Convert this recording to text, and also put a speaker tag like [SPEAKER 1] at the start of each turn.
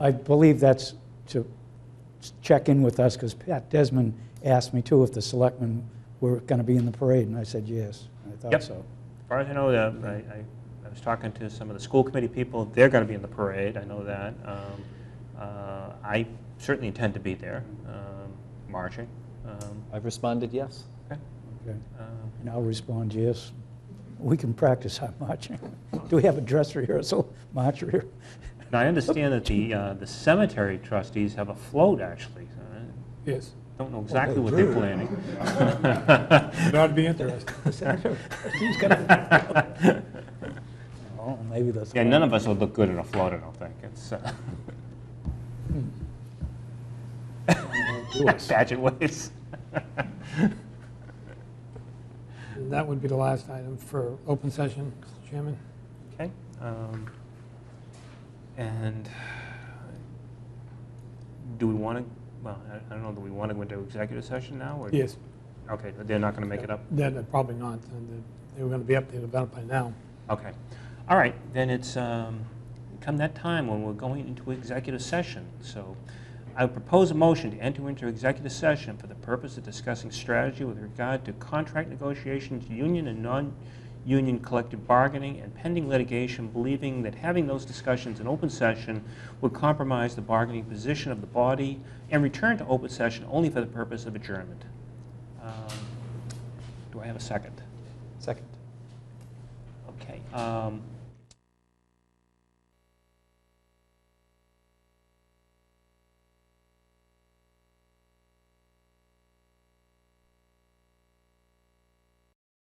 [SPEAKER 1] I believe that's to check in with us, because Pat Desmond asked me too if the selectmen were going to be in the parade, and I said yes. I thought
[SPEAKER 2] Yep.
[SPEAKER 1] so.
[SPEAKER 2] As far as I know, uh, I, I, I was talking to some of the school committee people, they're gonna be in the parade, I know that. Um, uh, I certainly intend to be there, um, marching. Um,
[SPEAKER 3] I've responded yes.
[SPEAKER 2] okay,
[SPEAKER 1] Okay.
[SPEAKER 2] um,
[SPEAKER 1] And I'll respond yes. We can practice our marching. Do we have a dress rehearsal, march rehearsal?
[SPEAKER 2] Now, I understand that the, uh, the cemetery trustees have a float, actually. so I
[SPEAKER 4] Yes,
[SPEAKER 2] Don't know exactly what they're
[SPEAKER 4] true.
[SPEAKER 2] planning.
[SPEAKER 4] Oh, that'd be interesting.
[SPEAKER 1] He's got a- Oh, maybe that's.
[SPEAKER 2] Yeah, none of us would look good in a float, I don't think. It's, uh,
[SPEAKER 1] Do us.
[SPEAKER 2] pageant ways.
[SPEAKER 4] And That would be the last item for open session, Mr. Chairman.
[SPEAKER 2] Okay. um, And do we want to, well, I- I don't know, do we want to go into executive session now? or-
[SPEAKER 4] Yes,
[SPEAKER 2] Okay, but they're not going to make it up?
[SPEAKER 4] then uh, probably not. uh, They were going to be updated about it by now.
[SPEAKER 2] Okay. All right, then it's um, come that time when we're going into executive session. So I propose a motion to enter into executive session for the purpose of discussing strategy with regard to contract negotiations, union and non-union collective bargaining, and pending litigation, believing that having those discussions in open session would compromise the bargaining position of the body, and return to open session only for the purpose of adjournment. Um, Do I have a second?
[SPEAKER 3] Second.
[SPEAKER 2] Okay. um,